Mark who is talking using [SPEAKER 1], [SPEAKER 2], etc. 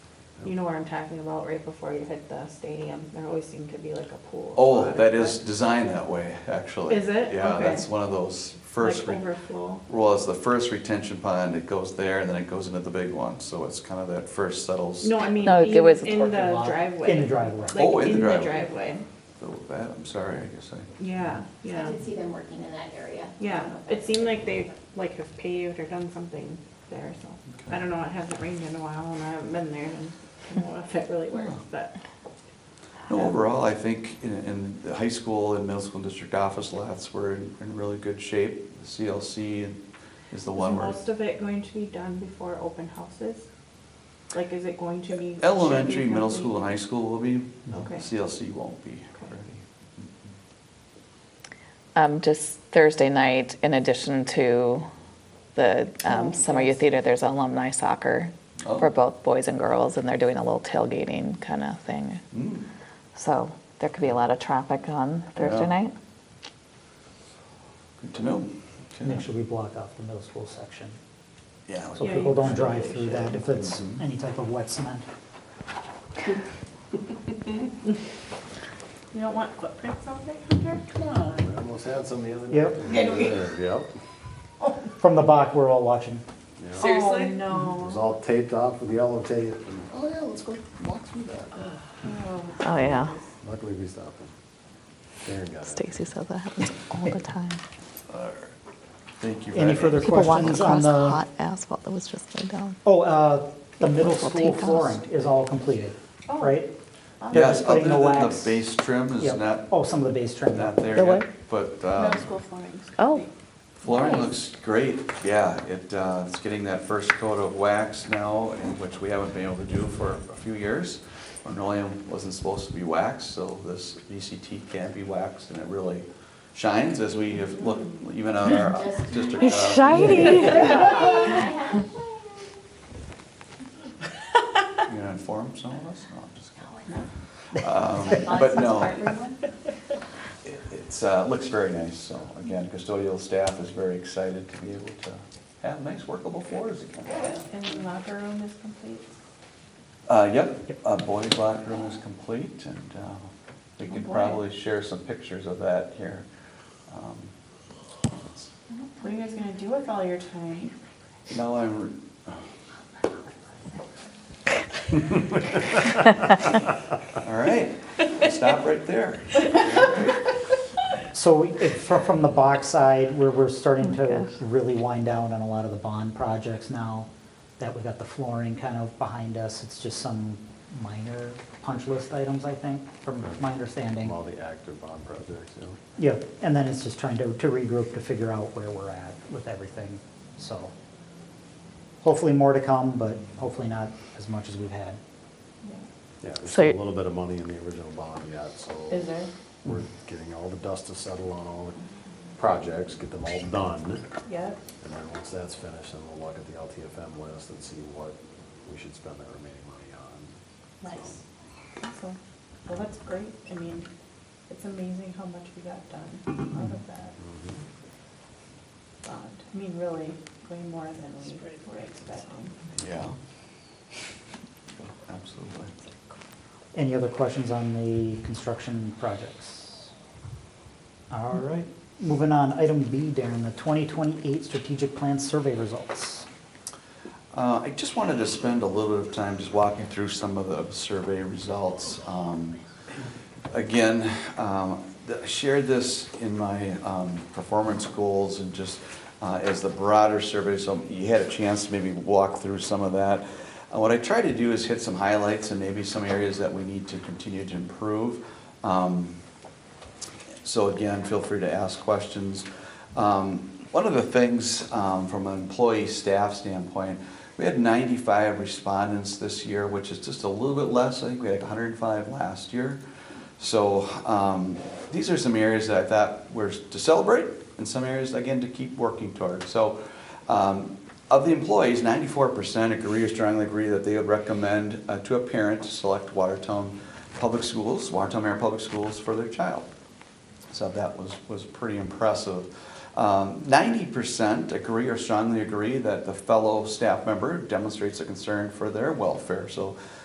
[SPEAKER 1] You know where I'm talking about, right before you hit the stadium, there always seemed to be like a pool. of
[SPEAKER 2] Oh,
[SPEAKER 1] water,
[SPEAKER 2] that is
[SPEAKER 1] but,
[SPEAKER 2] designed that way, actually.
[SPEAKER 1] Is it?
[SPEAKER 2] Yeah,
[SPEAKER 1] Okay.
[SPEAKER 2] that's one of those first,
[SPEAKER 1] Like
[SPEAKER 2] re-
[SPEAKER 1] overflow.
[SPEAKER 2] well, it's the first retention pond, it goes there, and then it goes into the big one, so it's kind of that first settles.
[SPEAKER 1] No, I mean,
[SPEAKER 3] No, it
[SPEAKER 1] even
[SPEAKER 3] was a
[SPEAKER 1] in the
[SPEAKER 3] parking
[SPEAKER 1] driveway.
[SPEAKER 4] In the driveway.
[SPEAKER 2] Oh,
[SPEAKER 1] Like, in the driveway.
[SPEAKER 2] So That, I'm sorry, I guess I,
[SPEAKER 1] Yeah,
[SPEAKER 5] I
[SPEAKER 1] yeah,
[SPEAKER 5] did see them working in that area. I don't
[SPEAKER 1] yeah.
[SPEAKER 5] know if
[SPEAKER 1] It
[SPEAKER 5] that's-
[SPEAKER 1] seemed like they, like, have paved or done something there, so. I don't know, it hasn't rained in a while, and I haven't been there, and I don't know if it really works, but.
[SPEAKER 2] no, overall, I think in, in the high school and middle school district office lots were in, in really good shape. The CLC is the
[SPEAKER 1] Is
[SPEAKER 2] one where
[SPEAKER 1] Most of it going to be done before open houses? Like, is it going to be? should it be
[SPEAKER 2] elementary, middle
[SPEAKER 1] complete?
[SPEAKER 2] school, and high school will be,
[SPEAKER 1] Okay.
[SPEAKER 2] CLC won't be
[SPEAKER 1] Okay.
[SPEAKER 2] ready.
[SPEAKER 3] Um, just Thursday night, in addition to the
[SPEAKER 4] Oh,
[SPEAKER 3] um, Summer Youth Theater, there's alumni soccer
[SPEAKER 2] Oh.
[SPEAKER 3] for both boys and girls, and they're doing a little tailgating kind of thing.
[SPEAKER 2] Hmm.
[SPEAKER 3] So there could be a lot of traffic on Thursday
[SPEAKER 2] Yeah.
[SPEAKER 3] night.
[SPEAKER 2] Good to know. Okay.
[SPEAKER 4] Make sure we block off the middle school section,
[SPEAKER 2] Yeah.
[SPEAKER 4] so
[SPEAKER 1] Yeah,
[SPEAKER 4] people
[SPEAKER 1] you
[SPEAKER 4] don't drive
[SPEAKER 1] probably
[SPEAKER 4] through that if it's
[SPEAKER 3] Mm-hmm.
[SPEAKER 2] Mhm.
[SPEAKER 4] any type of wet cement.
[SPEAKER 1] You don't want footprints out there, Hunter? Come on.
[SPEAKER 6] We Almost had some the other
[SPEAKER 4] Yep.
[SPEAKER 6] night.
[SPEAKER 1] Did we?
[SPEAKER 6] Yep.
[SPEAKER 4] From the back, we're all watching.
[SPEAKER 6] Yep.
[SPEAKER 1] Seriously?
[SPEAKER 6] It
[SPEAKER 1] Oh,
[SPEAKER 6] was
[SPEAKER 1] no.
[SPEAKER 6] all taped off with yellow tape. and, Oh, yeah, let's go walk through that.
[SPEAKER 3] Oh yeah,
[SPEAKER 6] Luckily, we stopped them. Darren got it.
[SPEAKER 3] Stacy said that happens all the time.
[SPEAKER 2] Thank you. Friday.
[SPEAKER 4] Any further
[SPEAKER 3] People walk
[SPEAKER 4] questions on
[SPEAKER 3] across
[SPEAKER 4] the,
[SPEAKER 3] hot asphalt that was just laid down.
[SPEAKER 4] oh, uh, the middle
[SPEAKER 3] We'll
[SPEAKER 4] school
[SPEAKER 3] take those.
[SPEAKER 4] flooring is all completed,
[SPEAKER 1] Oh.
[SPEAKER 4] right? They're
[SPEAKER 2] Yes,
[SPEAKER 4] just
[SPEAKER 2] other
[SPEAKER 4] putting
[SPEAKER 2] than
[SPEAKER 4] the
[SPEAKER 2] the
[SPEAKER 4] wax-
[SPEAKER 2] base trim is
[SPEAKER 4] Yep.
[SPEAKER 2] not,
[SPEAKER 4] Oh, some of the base trim.
[SPEAKER 2] not
[SPEAKER 3] The
[SPEAKER 2] there
[SPEAKER 3] what?
[SPEAKER 2] yet, but um,
[SPEAKER 5] Middle school flooring's
[SPEAKER 3] Oh,
[SPEAKER 2] flooring looks great. Yeah, it, uh, it's getting that first coat of wax now, and which we haven't been able to do for a few years. Linoleum wasn't supposed to be waxed, so this VCT can be waxed, and it really shines as we have looked even on our district.
[SPEAKER 3] it's
[SPEAKER 2] uh,
[SPEAKER 3] shiny.
[SPEAKER 2] You gonna inform some of us? No, I'm just kidding. Um, But no, It- It's, uh, looks very nice, so again, custodial staff is very excited to be able to have nice workable floors again.
[SPEAKER 1] And the locker room is complete?
[SPEAKER 2] Uh, yep, uh, boys locker room is complete and, uh, we could probably share some pictures of that here. Um,
[SPEAKER 1] What are you guys gonna do with all your time?
[SPEAKER 2] Now I'm, all right, stop right there.
[SPEAKER 4] So it, fro- from the box side, we're, we're starting
[SPEAKER 3] Oh my
[SPEAKER 4] to
[SPEAKER 3] gosh.
[SPEAKER 4] really wind down on a lot of the bond projects now that we got the flooring kind of behind us. It's just some minor punch list items, I think, from my understanding.
[SPEAKER 6] All the active bond projects, you know.
[SPEAKER 4] Yeah, and then it's just trying to, to regroup to figure out where we're at with everything, so. Hopefully more to come, but hopefully not as much as we've had.
[SPEAKER 6] Yeah, there's
[SPEAKER 3] So-
[SPEAKER 6] still a little bit of money in the original bond yet, so.
[SPEAKER 1] Is there?
[SPEAKER 6] We're getting all the dust to settle on all the projects, get them all done.
[SPEAKER 1] Yep.
[SPEAKER 6] And then once that's finished, then we'll look at the LTFM list and see what we should spend that remaining money on.
[SPEAKER 1] Nice. Awesome. Well, that's great. I mean, it's amazing how much we got done out of that bond. I mean, really, way more than we were expecting.
[SPEAKER 2] Yeah. Absolutely.
[SPEAKER 4] Any other questions on the construction projects? All right, moving on, item B, Darren, the 2028 strategic plan survey results.
[SPEAKER 2] Uh, I just wanted to spend a little bit of time just walking through some of the survey results. Um, Again, um, th- I shared this in my um, performance goals and just uh, as the broader survey, so you had a chance to maybe walk through some of that. Uh, What I try to do is hit some highlights and maybe some areas that we need to continue to improve. Um, so again, feel free to ask questions. Um, One of the things, um, from an employee staff standpoint, we had 95 respondents this year, which is just a little bit less. I think we had 105 last year. So um, these are some areas that I thought were to celebrate and some areas, again, to keep working toward. So um, of the employees, 94% agree or strongly agree that they would recommend uh, to a parent to select Watertown Public Schools, Watertown Area Public Schools for their child. So that was, was pretty impressive. Um, Ninety percent agree or strongly agree that the fellow staff member demonstrates a concern for their welfare. So